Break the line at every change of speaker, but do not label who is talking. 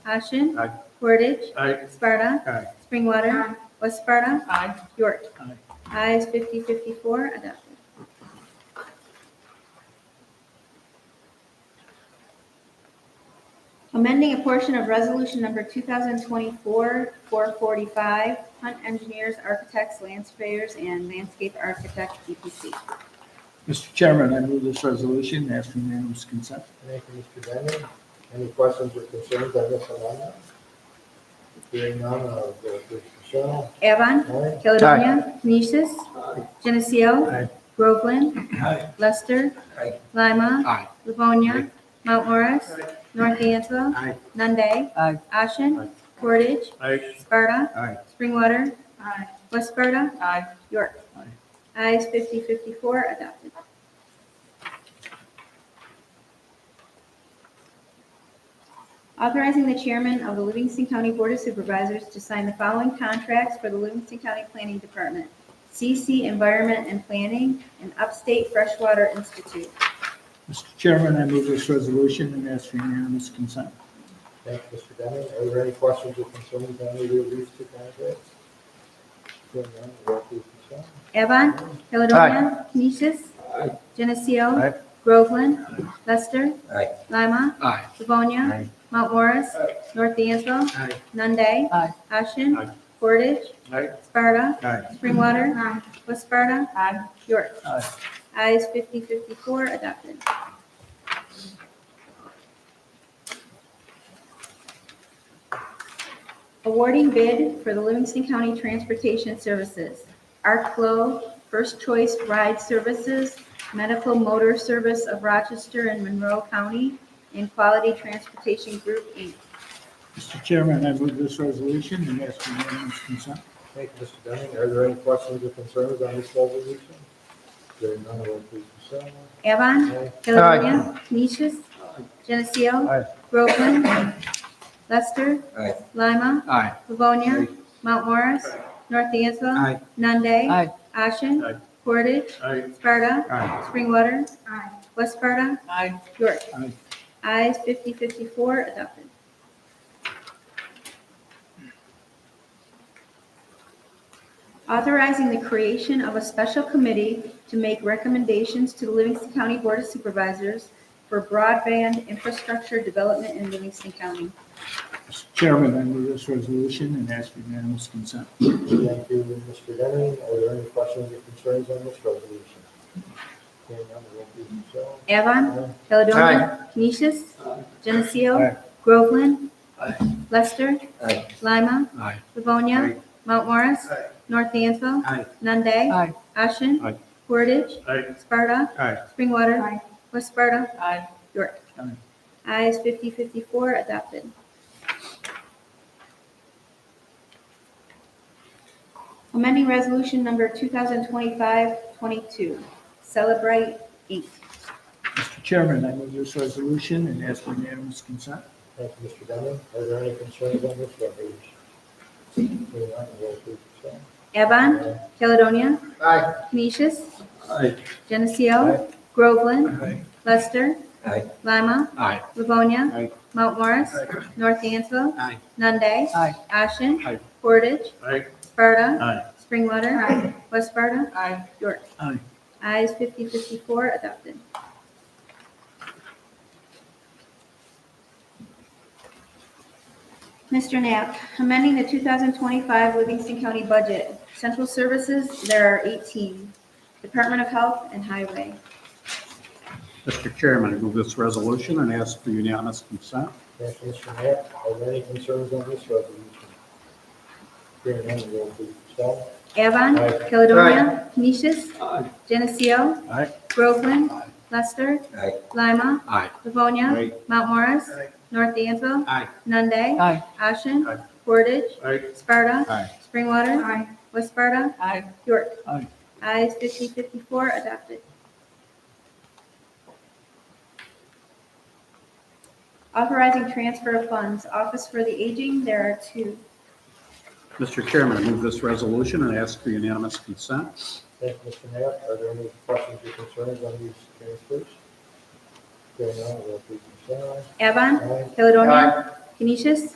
Ashen.
Aye.
Portage.
Aye.
Sparta.
Aye.
Springwater. West Sparta.
Aye.
York.
Aye.
Ayes 54 adopted. Amending a portion of Resolution Number 2024-445, Hunt Engineers, Architects, Landscapers, and Landscape Architect, E DPC.
Mr. Chairman, I move this resolution and ask for unanimous consent.
Thank you, Mr. Bennett. Any questions or concerns on this amendment? Hearing none, uh, I'll go to Michelle.
Avon.
Aye.
Caledonia. Canisius. Geneseo.
Aye.
Groveland.
Aye.
Lester.
Aye.
Lima.
Aye.
Livonia. Mount Morris. North D'Anville.
Aye.
Nunde.
Aye.
Ashen.
Aye.
Portage.
Aye.
Sparta.
Aye.
Springwater.
Aye.
West Sparta.
Aye.
York.
Aye.
Ayes 54 adopted. Authorizing the chairman of the Livingston County Board of Supervisors to sign the following contracts for the Livingston County Planning Department. CC Environment and Planning and Upstate Freshwater Institute.
Mr. Chairman, I move this resolution and ask for unanimous consent.
Thank you, Mr. Bennett. Are there any questions or concerns on either of these two candidates? Hearing none, I'll go to Michelle.
Avon. Caledonia. Canisius. Geneseo.
Aye.
Groveland. Lester.
Aye.
Lima.
Aye.
Livonia.
Aye.
Mount Morris. North D'Anville.
Aye.
Nunde.
Aye.
Ashen.
Aye.
Portage.
Aye.
Sparta.
Aye.
Springwater. West Sparta.
Aye.
York.
Aye.
Ayes 54 adopted. Awarding bid for the Livingston County Transportation Services, ArcFlow, First Choice Ride Services, Medical Motor Service of Rochester and Monroe County, and Quality Transportation Group, Inc.
Mr. Chairman, I move this resolution and ask for unanimous consent.
Thank you, Mr. Bennett. Are there any questions or concerns on this resolution? Hearing none, I'll go to Michelle.
Avon,
Aye.
Caledonia, Canisius, Geneseo,
Aye.
Groveland, Lester,
Aye.
Lima,
Aye.
Livonia, Mount Morris, North D'Anville,
Aye.
Nunde,
Aye.
Ashen,
Aye.
Portage,
Aye.
Sparta,
Aye.
Springwater, West Sparta,
Aye.
York.
Aye.
Ayes 54 adopted. Authorizing the creation of a special committee to make recommendations to the Livingston County Board of Supervisors for broadband infrastructure development in Livingston County.
Mr. Chairman, I move this resolution and ask for unanimous consent.
Thank you, Mr. Denning. Are there any questions or concerns on this resolution? Hearing none, we'll go to Michelle.
Avon,
Aye.
Caledonia, Canisius, Geneseo, Groveland,
Aye.
Lester,
Aye.
Lima,
Aye.
Livonia,
Aye.
Mount Morris,
Aye.
North Dansville,
Aye.
Nunde,
Aye.
Ashen,
Aye.
Portage,
Aye.
Sparta,
Aye.
Springwater. West Sparta.
Aye.
York.
Aye.
Ayes 54 adopted. Amending Resolution Number 2025-22, Celebrate Inc.
Mr. Chairman, I move this resolution and ask for unanimous consent.
Thank you, Mr. Denning. Are there any concerns on this resolution? Hearing none, we'll go to Michelle.
Evan,
Aye.
Caledonia,
Aye.
Canisius,
Aye.
Geneseo, Groveland,
Aye.
Lester,
Aye.
Lima,
Aye.
Livonia,
Aye.
Mount Morris, North Dansville,
Aye.
Nunde,
Aye.
Ashen,
Aye.
Portage,
Aye.
Sparta,
Aye.
Springwater, West Sparta,
Aye.
York.
Aye.
Ayes 54 adopted. Mr. Knapp, amending the 2025 Livingston County budget. Central services, there are 18. Department of Health and Highway.
Mr. Chairman, I move this resolution and ask for unanimous consent.
Thank you, Mr. Knapp. Are there any concerns on this resolution? Hearing none, we'll go to Michelle.
Avon,
Aye.
Caledonia, Canisius, Geneseo,
Aye.
Groveland, Lester,
Aye.
Lima,
Aye.
Livonia,
Aye.
Mount Morris,
Aye.
North Dansville,
Aye.
Nunde,
Aye.
Ashen,
Aye.
Portage,
Aye.
Sparta,
Aye.
Springwater. West Sparta.
Aye.
York.
Aye.
Ayes 54 adopted. Authorizing transfer of funds, Office for the Aging, there are two.
Mr. Chairman, I move this resolution and ask for unanimous consent.
Thank you, Mr. Knapp. Are there any questions or concerns on these transfers? Hearing none, we'll go to Michelle.
Avon,
Aye.
Caledonia, Canisius,